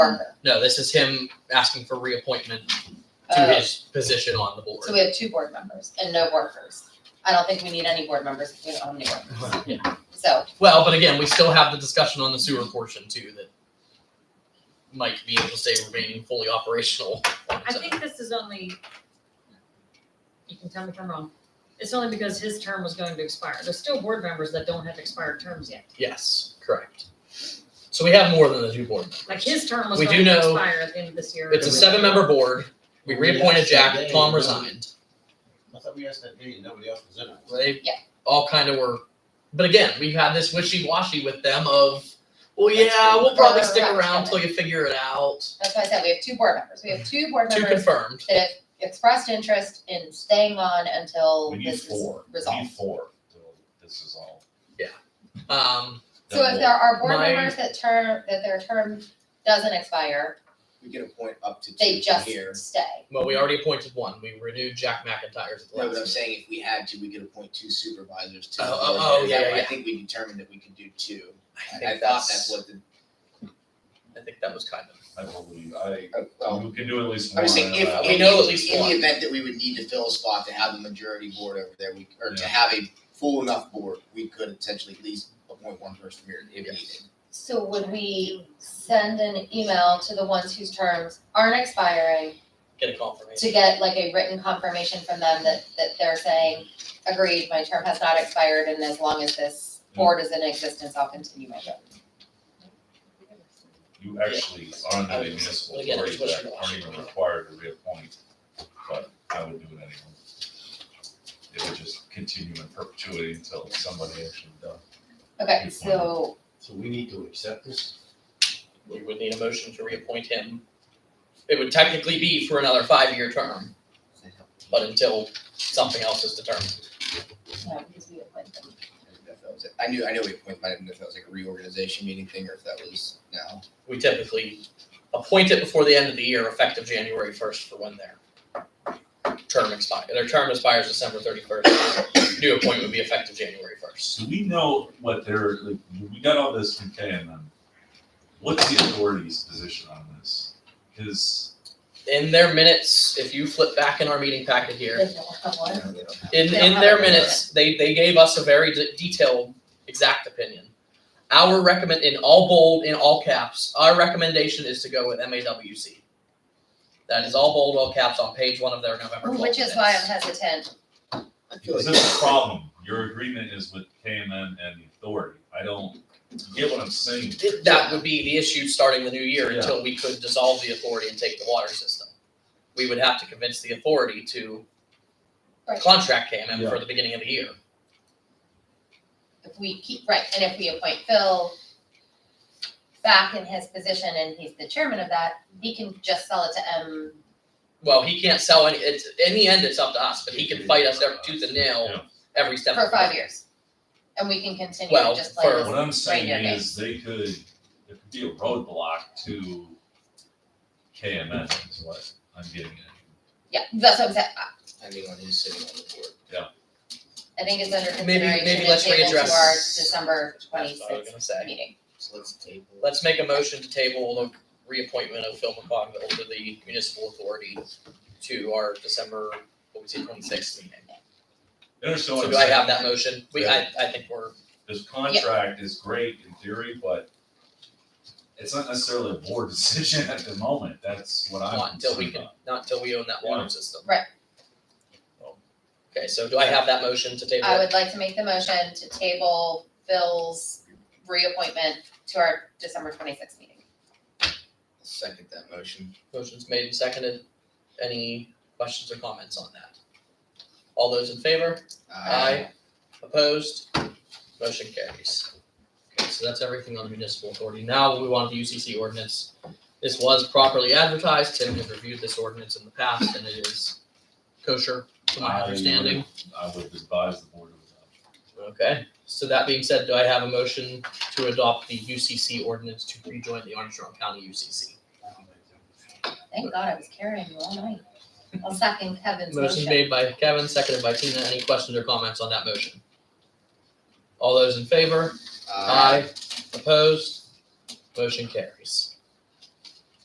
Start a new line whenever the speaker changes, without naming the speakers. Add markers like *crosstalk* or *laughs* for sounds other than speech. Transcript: No, this is him asking for reappointment to
Uh,
his position on the board.
So we have two board members and no workers. I don't think we need any board members if we don't have any workers. So,
Well, but again, we still have the discussion on the sewer portion too that might be able to stay remaining fully operational. on
I
its own.
think this is only, you can tell me if I'm wrong, it's only because his term was going to expire. There's still board members that don't have expired terms yet.
Yes, correct. So we have more than the two board members.
Like his term was
We
going
do
to
know
expire at the end of this year.
It's a seven member board. We reappointed Jack, Tom resigned.
I thought we asked that day and nobody else was in it.
They
Yeah.
all kind of were, but again, we've had this wishy washy with them of, well,
That's
yeah,
good.
we'll probably stick
Right, right,
around
right.
till you figure it out.
that's why I said we have two board members. We have two board
Two
members
confirmed.
that have expressed interest in staying on until
We need
this is
four, we need
resolved.
four, so this is all.
Um,
So if there are board
My-
members that term, that their term doesn't expire,
We get a point up to
they
two from
just
here.
stay.
well, we already appointed one. We renewed Jack McIntyre's. at the
Mhm. No, but I'm
last
saying if we had to, we could appoint two supervisors to. the
Oh, oh,
board.
oh, yeah,
That way
yeah.
I think we determined that we could do two. I-
meeting.
I thought that's what the,
I think that was kind of.
I believe, I,
oh, well,
we can do at least
I'm
one.
just saying if,
uh,
We
in
know at
the,
least
in
one.
the event that we would need to fill a spot to have the majority board over there, we, or to
Yeah.
have a full enough board, we could potentially at least appoint one person here if
Yes.
needed.
So would we send an email to the ones whose terms aren't expiring
Get a confirmation.
to get like a written confirmation from them that, that they're saying, agreed, my term has not expired and as long as this
Mm.
board is in existence, I'll continue my job.
You actually are under the municipal
But again,
authority
it's
that
what
aren't
you
even
want.
required to reappoint, but I would do it anyway. It would just continue in perpetuity until somebody actually does.
Okay,
Mm.
so
So we need to accept this?
We would need a motion to reappoint him. It would technically be for another five-year term, but until something else is determined.
no, because we appoint them.
I don't know if that was it. I knew, I knew we appointed, I didn't know if that was like a reorganization meeting thing or if that was now.
We typically appoint it before the end of the year, effective January first for when their term expires. Their term expires December thirty-first. New appointment would be effective January first.
So we know what they're, like, we got all this from Kay and then, what's the authority's position on this? Cause
In their minutes, if you flip back in our meeting packet here,
They don't have
I
one.
don't know, they don't have-
In,
They don't
in
have
their
a-
minutes, they, they gave us a very de- detailed, exact opinion. Our recommend, in all bold, in all caps, our recommendation is to go with MAWC. That is all bold, all caps on page one of their November twelfth
Which is why I'm hesitant.
I feel
this
like.
is a problem, your agreement is with KMN and the authority, I don't, you get what I'm saying?
That would be the issue starting the new year
Yeah.
until we could dissolve the authority and take the water system. We would have to convince the authority to
Right.
contract KMM for
Yeah.
the beginning of the year.
If we keep, right, and if we appoint Phil back in his position and he's the chairman of that, he can just sell it to M.
Well, he can't sell any, it's, in the end, it's up to us, but he can fight us every tooth and nail
Yeah.
every step of
for
the way.
five years. And we can continue
Well,
to just play
for-
this.
What I'm saying
Right, yeah,
is they could, there could be a roadblock to KMN is what I'm getting at.
Yeah, that's what I'm saying. I-
Depending on who's sitting on the board.
I think it's under
Maybe-
consideration
maybe
and
let's
tabled to
readdress-
our December
That's what I was
twenty-sixth
gonna say.
meeting.
So let's table.
Let's make a motion to table the reappointment of Phil McCogville to the municipal authority to our December, what was it, twenty-sixth meeting.
You Understand what
So
I'm
do I
saying?
have that motion? We, I, I think we're,
This contract is great in theory, but it's not necessarily a board *laughs* decision at the moment, that's what I'm
not until we
concerned
can,
about.
not until we own that water system.
Right.
Okay, so do I have that motion to table?
I
it?
would like to make the motion to table Phil's reappointment to our December twenty-sixth meeting.
Second that motion.
Motion's made and seconded. Any questions or comments on that? All those in favor? Aye. Opposed? Motion carries. Okay, so that's everything on the municipal authority. Now we want the UCC ordinance. This was properly advertised. Tim has reviewed this ordinance in the past and it is kosher to
I
my
would-
understanding.
I would advise the board to adopt.
Okay, so that being said, do I have a motion to adopt the UCC ordinance to rejoin the Armstrong County UCC?
Thank God I was carrying you all night. I'll second Kevin's
Motion
motion.
made by Kevin, seconded by Tina. Any questions or comments on that motion? All those in favor? Opposed? Motion carries.